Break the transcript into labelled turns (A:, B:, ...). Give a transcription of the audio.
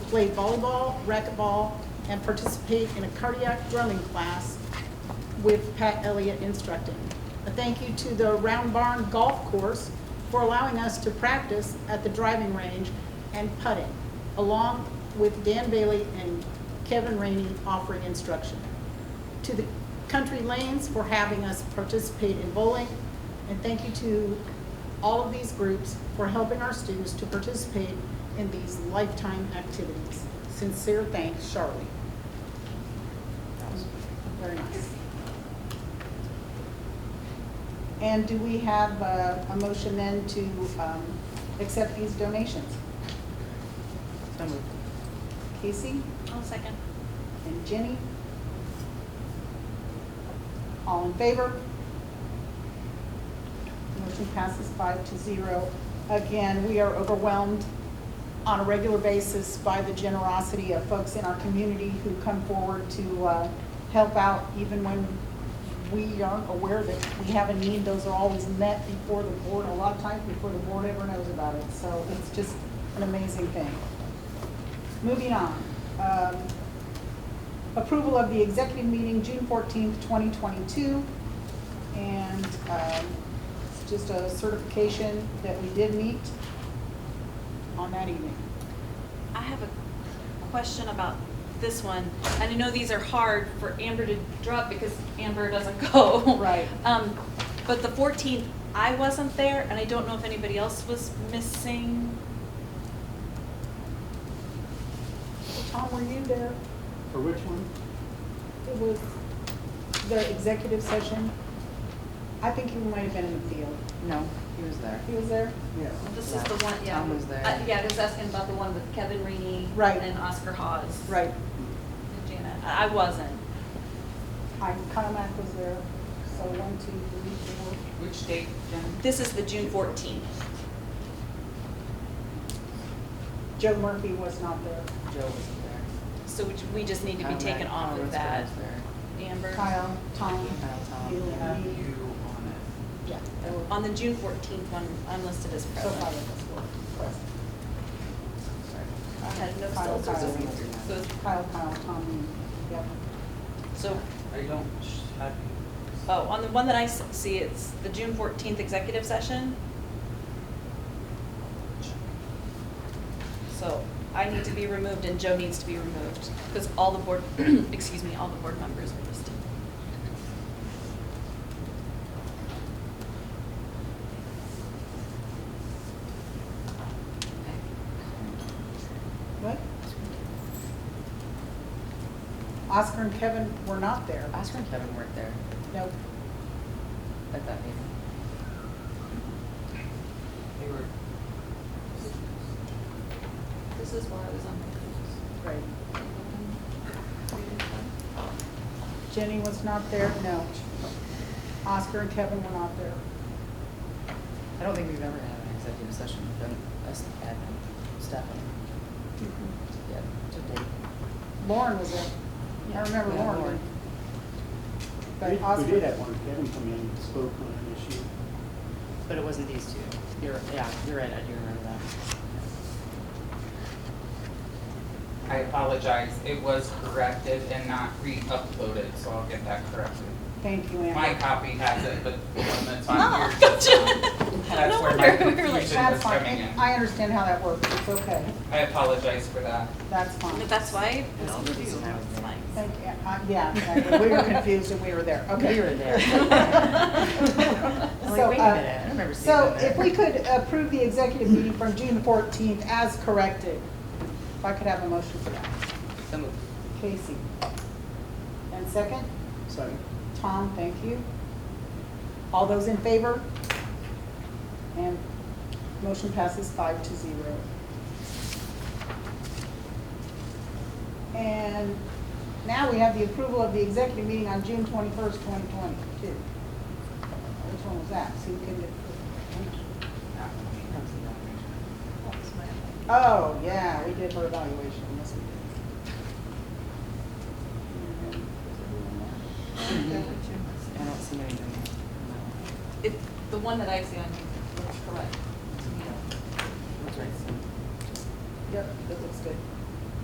A: play volleyball, racquetball, and participate in a cardiac drumming class with Pat Elliott instructing. A thank you to the Round Barn Golf Course for allowing us to practice at the driving range and putting, along with Dan Bailey and Kevin Rainey offering instruction. To the Country Lanes for having us participate in bowling, and thank you to all of these groups for helping our students to participate in these lifetime activities. Sincere thanks, Charlie. Very nice. And do we have uh, a, a motion then to, um, accept these donations?
B: So moved.
A: Casey
C: I'll second.
A: and Jenny? All in favor? Motion passes five to zero. Again, we are overwhelmed on a regular basis by the generosity of folks in our community who come forward to uh, help out even when we aren't aware that we have a need. Those are always met before the board, a lot of times before the board ever knows about it. So it's just an amazing thing. Moving on. Um, Approval of the executive meeting, June fourteenth, twenty twenty-two. And um, it's just a certification that we did meet on that evening.
C: I have a question about this one. And I know these are hard for Amber to drop because Amber doesn't go.
A: Right.
C: Um, but the fourteenth, I wasn't there and I don't know if anybody else was missing.
A: Tom, were you there?
D: For which one?
A: It was the executive session. I think you might have been in the field.
B: No, he was there.
A: He was there?
D: Yeah.
C: This is the one, yeah.
B: Tom was there.
C: Uh, Yeah, just asking about the one with Kevin Reaney.
A: Right.
C: And Oscar Hawes.
A: Right.
C: And Janet. I I wasn't.
A: I, Carmack was there, so one, two, three, four.
B: Which date, Jen?
C: This is the June fourteenth.
A: Joe Murphy was not there.
B: Joe wasn't there.
C: So we ju- we just need to be
B: Conrad
C: taken off of
B: Conrad's
C: that.
B: was there.
C: Amber.
A: Kyle, Tom.
B: Kyle, Tom,
A: you,
B: and
A: me.
B: you on it.
A: Yeah. there were-
C: On the June fourteenth one, I'm listed as
A: So five
C: present.
A: of us were present.
B: Sorry.
C: I had no
A: Kyle,
C: filters.
A: Kyle.
C: So it's-
A: Kyle, Kyle, Tom, yep.
C: So,
E: I don't have
C: oh, on the one that I s- see, it's the June fourteenth executive session. Oh. So I need to be removed and Joe needs to be removed because all the board, excuse me, all the board members are listed.
A: What? Oscar and Kevin were not there.
B: Oscar and Kevin weren't there
A: No,
B: at that meeting.
E: They were,
C: This is where I was on.
A: right. Jenny was not there, no. Oscar and Kevin were not there.
B: I don't think we've ever had an executive session with them, us admin, staff, yeah, to date.
A: Lauren was there. I remember
B: We had
A: Lauren.
D: We-
A: But Oscar.
D: We did have one, Kevin come in and spoke on an issue.
B: But it wasn't these two. You're, yeah, you're right, I do remember that.
F: I apologize, it was corrected and not re-uploaded, so I'll get that corrected.
A: Thank you,
F: My
A: Amber.
F: copy has it, but the one that's on
C: Ah,
F: here.
C: gotcha.
F: That's
C: No
F: where my
C: wonder, we were like,
F: confusion
A: That's
F: was
A: fine.
F: coming in.
A: And I understand how that works. It's okay.
F: I apologize for that.
A: That's fine.
C: But that's why,
B: That's
C: I'll
B: the
C: review,
B: reason I was
C: it's
B: there.
C: fine.
A: Thank you. Uh, Yeah, exactly. We were confused and we were there. Okay.
B: We were there.
A: So,
B: I'm like, wait
A: uh,
B: a minute, I remember seeing them
A: So
B: there.
A: if we could approve the executive meeting from June fourteenth as corrected, if I could have a motion for that.
B: So moved.
A: Casey. And second,
D: So
A: Tom, thank you. All those in favor? And motion passes five to zero. And now we have the approval of the executive meeting on June twenty-first, twenty twenty-two. Which one was that? So you can, Oh, yeah, we did her evaluation, yes, we did.
B: I don't see anything. No.
C: It, the one that I see on here looks correct.
B: That's right, so.
A: Yep, that looks good.